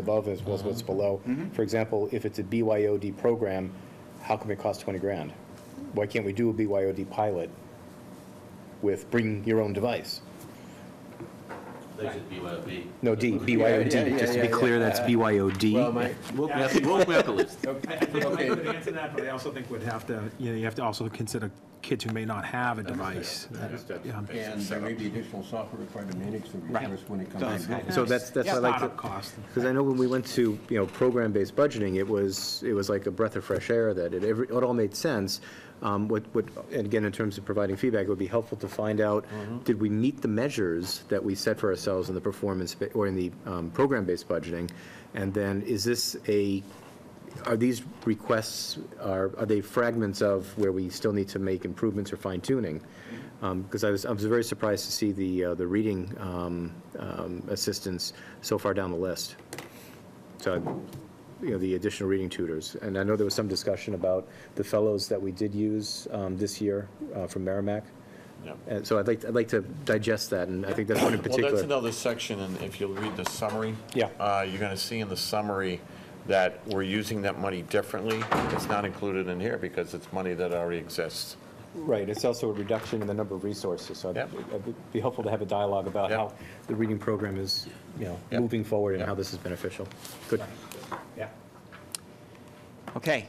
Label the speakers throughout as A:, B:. A: above as well as what's
B: Uh-huh.
A: below.
B: Mm-hmm.
A: For example, if it's a BYOD program, how come it costs 20 grand? Why can't we do a BYOD pilot with bring your own device?
C: They should be what it be.
A: No, D,
B: Yeah, yeah,
A: BYOD, just to be
B: yeah,
A: clear,
B: yeah.
A: that's
B: Well,
A: BYOD.
B: my,
C: We'll, we have to- we'll, we have to list.
D: I think I could answer that, but I also think we'd have to, you know, you have to also consider kids who may not have a device. Yeah.
B: and there may be additional software required to manage the resource when it comes in.
A: So that's, that's what I like to.
D: Startup cost.
A: Because I know when we went to, you know, program-based budgeting, it was, it was like a breath of fresh air, that it, every- it all made sense. Um, What, what, and again, in terms of providing feedback, it would be helpful to find out, did we meet the measures that we set for ourselves in the performance, ba- or in the um, program-based budgeting? And then, is this a, are these requests, are, are they fragments of where we still need to make improvements or fine tuning? Because I was, I was very surprised to see the, uh, the reading um, um, assistance so far down the list. So, you know, the additional reading tutors. And I know there was some discussion about the fellows that we did use um, this year uh, from Merrimack. And so I'd like, I'd like to digest that, and I think that's one in
E: Well, that's
A: particular.
E: another section, and if you'll read the summary.
A: Yeah.
E: uh, You're going to see in the summary that we're using that money differently. It's not included in here because it's money that already exists.
A: Right, it's also a reduction in the number of resources, so
E: Yep.
A: it'd be helpful to have a dialogue about
E: Yep.
A: how the reading program is, you know,
E: Yep.
A: moving forward and how
E: Yep.
A: this is beneficial. Good.
F: Okay.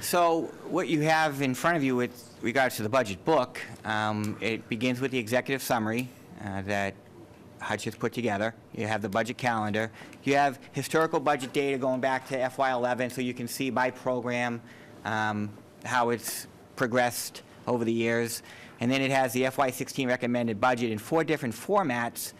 F: So what you have in front of you with regards to the budget book, um, it begins with the executive summary uh, that Hutch has put together. You have the budget calendar. You have historical budget data going back to FY11, so you can see by program um, how it's progressed over the years. And then it has the FY16 recommended budget in four different formats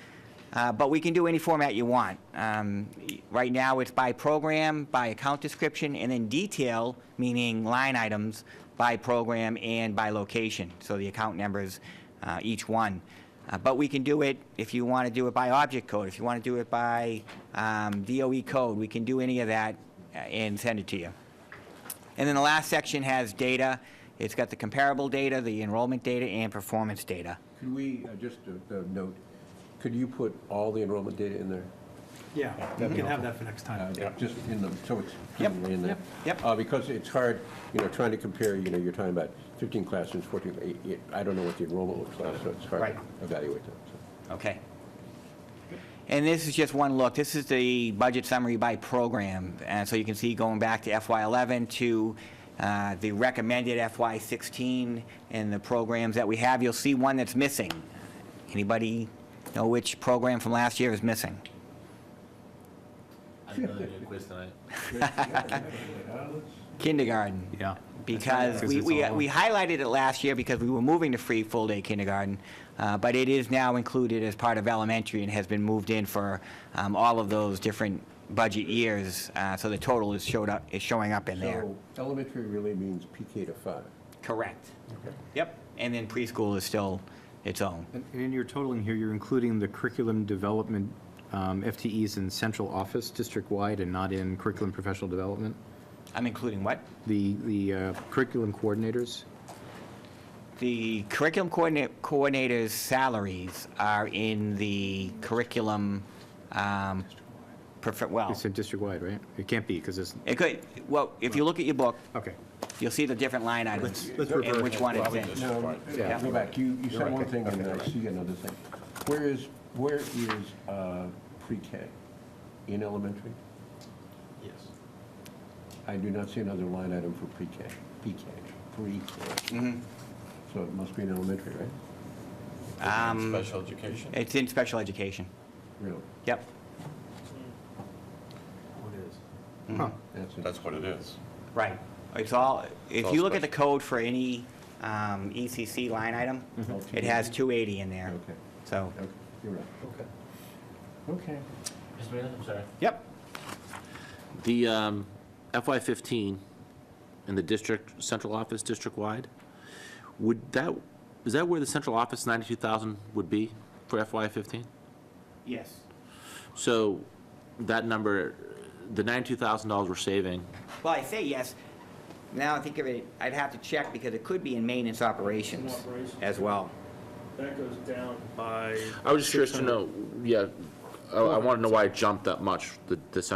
F: uh, But we can do any format you want. Um, y- Right now, it's by program, by account description, and then detail, meaning line items, by program and by location, so the account numbers, uh, each one. Uh, But we can do it, if you want to do it by object code, if you want to do it by um, DOE code, we can do any of that uh, and send it to you. And then the last section has data. It's got the comparable data, the enrollment data, and performance data.
B: Could we, uh, just a a note, could you put all the enrollment data in there?
D: Yeah, we can have that for next time.
B: Uh, Just in the, so it's
F: Yep,
B: clearly in there.
F: yep, yep.
B: Uh, Because it's hard, you know, trying to compare, you know, you're talking about 15 classrooms, 14, eight- eight- I don't know what the enrollment looks like, so it's hard
F: Right.
B: to evaluate that. so.
F: Okay. And this is just one look. This is the budget summary by program. And so you can see going back to FY11 to uh, the recommended FY16 and the programs that we have. You'll see one that's missing. Anybody know which program from last year is missing?
C: I know they did a quiz tonight.
F: Kindergarten.
A: Yeah.
F: Because
A: Because
F: we,
A: it's
F: we
A: all-
F: we highlighted it last year because we were moving to free full-day kindergarten, uh, but it is now included as part of elementary and has been moved in for um, all of those different budget years, uh, so the total is showed up, is showing up in there.
B: So elementary really means PK to 5.
F: Correct. Yep, and then preschool is still its own.
A: And and in your totaling here, you're including the curriculum development um, FTEs in central office, district-wide, and not in curriculum professional development?
F: I'm including what?
A: The, the uh, curriculum coordinators?
F: The curriculum coordina- coordinators' salaries are in the curriculum, um, prefer- well,
A: It's in district-wide, right? It can't be, because it's,
F: it could, well, if you look at your book,
A: okay.
F: You'll see the different line items
A: let's
F: and
A: revert
F: which one it's
E: Probably
F: in.
E: just
B: No,
E: fine.
F: Yeah.
B: go back, you, you said
A: right.
B: one thing and I see another thing. Where is, where is uh, pre-K? In elementary?
C: Yes.
B: I do not see another line item for pre-K, PK, pre-K. So it must be in elementary, right?
A: Um,
E: Special education.
F: Um, It's in special education.
B: Really?
F: Yep.
B: That's it.
E: That's what it is.
F: Right. It's all, if
E: all
F: you look at the
E: special.
F: code for any um, ECC line item,
E: Mm-hmm.
F: it has 280 in there.
B: Okay.
F: So,
B: Okay, You're right. Okay. Okay.
C: Mr. Mayor, I'm sorry.
F: yep.
C: The um, FY15 in the district, central office, district-wide, would that, is that where the central office 92,000 would be for FY15?
F: Yes.
C: So that number, the $92,000 we're saving,
F: Well, I say yes. Now I think of it, I'd have to check because it could be in maintenance operations
G: Operations.
F: as well.
G: That goes down by.
C: I was just curious to know, yeah, I want to know why it jumped that much, the the